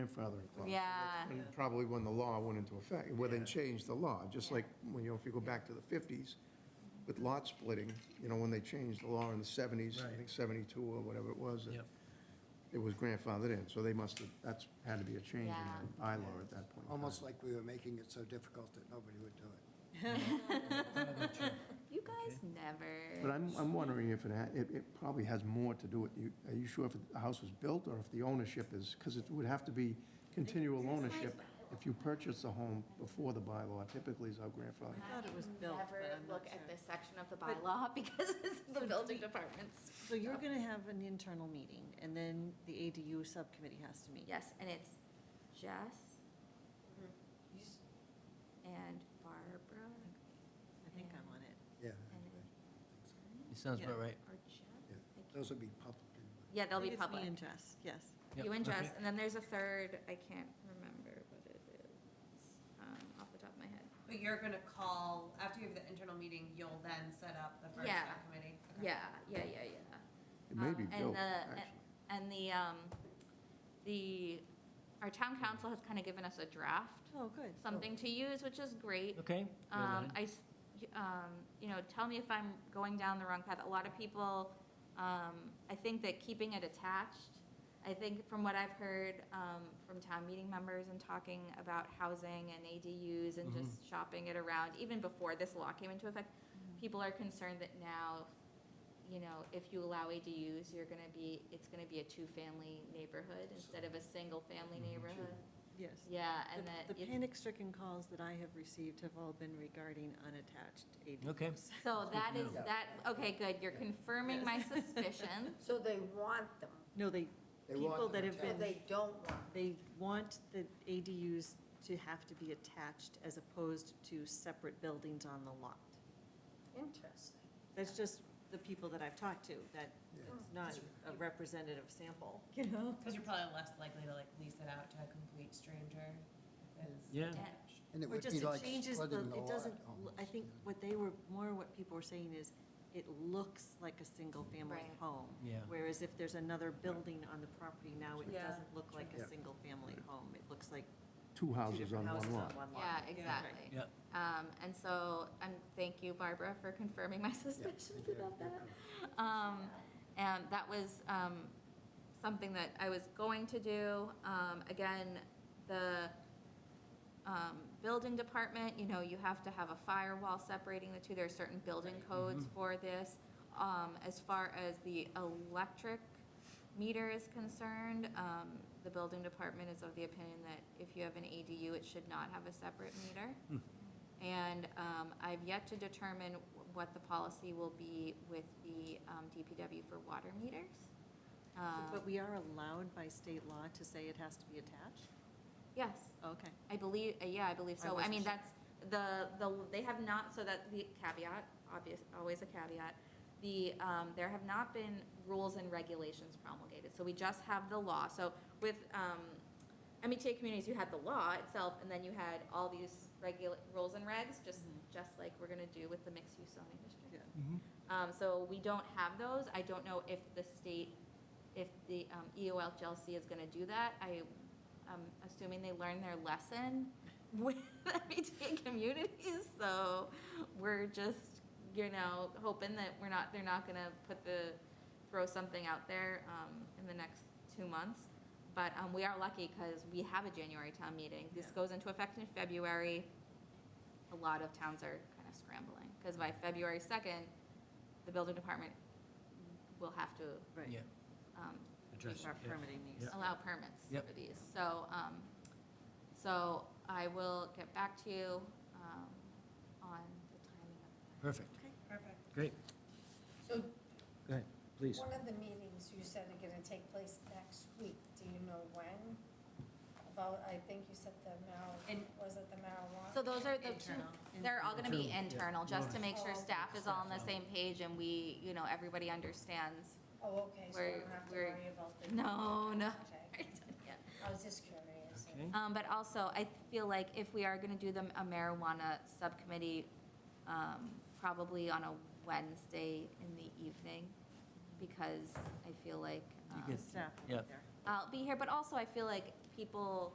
grandfathering clause. Yeah. And probably when the law went into effect, well, then changed the law, just like, when you know, if you go back to the 50s with lot splitting, you know, when they changed the law in the 70s, I Right. think 72 or whatever it was, it- Yep. it was grandfathered in, so they must have, that's, had to be a change in Yeah. the bylaw at that point. in time. Almost like we were making it so difficult that nobody would do it. You guys But never. I'm, I'm wondering if it, ha- it, it probably has more to do with, you, are you sure if the house was built or if the ownership is, because it would have to be continual ownership. If you purchase a home before the bylaw, typically is our grandfather. thought it was built, but Never I'm not look at sure. this section of the bylaw because it's the building department's. So you're going to have an internal meeting, and then the ADU subcommittee has to meet. Yes, and it's Jess Mm-hmm. and Barbara I think I'm on it. Yeah. It sounds about right. or Jess? Yeah. I can't- Those would be public. anyway. Yeah, they'll be It's me public. and Jess, yes. Yep, You and okay. Jess, and then there's a third, I can't remember what it is, um, off the top of my head. But you're gonna call, after you have the internal meeting, you'll then set up the first Yeah. subcommittee? Okay. Yeah, yeah, yeah, yeah. It may Uh, Um, be and built, the- actually. And the, um, the, our town council has kind of given us a draft, Oh, good. something to use, which is great. Okay. well Um, then. I, s- y- um, you know, tell me if I'm going down the wrong path. A lot of people, um, I think that keeping it attached, I think from what I've heard, um, from town meeting members and talking about housing and ADUs and Mm-hmm. just shopping it around, even before this law came into effect, people are concerned that now, you know, if you allow ADUs, you're gonna be, it's gonna be a two-family neighborhood instead of a single-family neighborhood. Yes. Yeah, and Mm-hmm. The- that. The it's- panic-stricken calls that I have received have all been regarding unattached ADUs. Okay. So that is, know. that, okay, good, you're confirming my suspicions. So they want them, No, they, They want people that them have so been, attached. they don't want. they want the ADUs to have to be attached as opposed to separate buildings on the lot. Interesting. That's just the people that I've talked to, that Yeah. it's not a representative sample, you know? Cause you're probably less likely to like lease it out to a complete stranger. Yeah. And it Or would just be it like changes the, splitting the it lot doesn't, almost, I think yeah. what they were, more what people were saying is, it looks like a single-family Right. home. Yeah. Whereas if there's another building on the property now, it Yeah. doesn't look like Yeah. a single-family home. It looks like Two two houses on different houses one on lot. one lot. Yeah, exactly. Yeah. Um, and so, and thank you, Barbara, for confirming my suspicions about that. Um, and that was, um, something that I was going to do. Um, again, the, um, building department, you know, you have to have a firewall separating the two. There are certain building codes for this. Um, as far as the electric meter is concerned, um, the building department is of the opinion that if you have an ADU, it should not have a separate meter. And um, I've yet to determine wh- what the policy will be with the um, DPW for water meters. Um, But we are allowed by state law to say it has to be attached? Yes, Okay. I believe, uh, yeah, I believe I so. I wasn't mean, sure. that's, the, the, they have not, so that, the caveat, obvious, always a caveat. The, um, there have not been rules and regulations promulgated, so we just have the law. So with, um, MHA communities, you had the law itself, and then you had all these regula, rules and regs, just, just like we're gonna do with the mixed-use zoning district. Yeah. Um, so we don't have those. I don't know if the state, if the um, EOLGLC is gonna do that. I, I'm assuming they learned their lesson with MBTA communities, so we're just, you know, hoping that we're not, they're not gonna put the, throw something out there, um, in the next two months. But, um, we are lucky because we have a January town meeting. This Yeah. goes into effect in February. A lot of towns are kind of scrambling, because by February second, the building department will have to, Yeah. Right. um, Address. Our yeah. permitting needs. Yeah. allow permits Yep. for these. So, um, so I will get back to you, um, on the timing of Perfect. Perfect. Great. So Go ahead, please. one of the meetings you said are going to take place next week. Do you know when? About, I think you said the marijuana, And- was it the marijuana? that. So those are the two, Internal. they're all gonna be Internal, yeah. internal, just to make sure Oh, okay. staff is all on the Staff same page and we, you know, everybody understands. Oh, okay, so I We're- don't have to we're- worry about the. No, no. Okay. I was just curious. Okay. Um, but also, I feel like if we are gonna do the a marijuana subcommittee, um, probably on a Wednesday in the evening, because I feel like, um, get Staff Yeah. there. I'll be here, but also I feel like people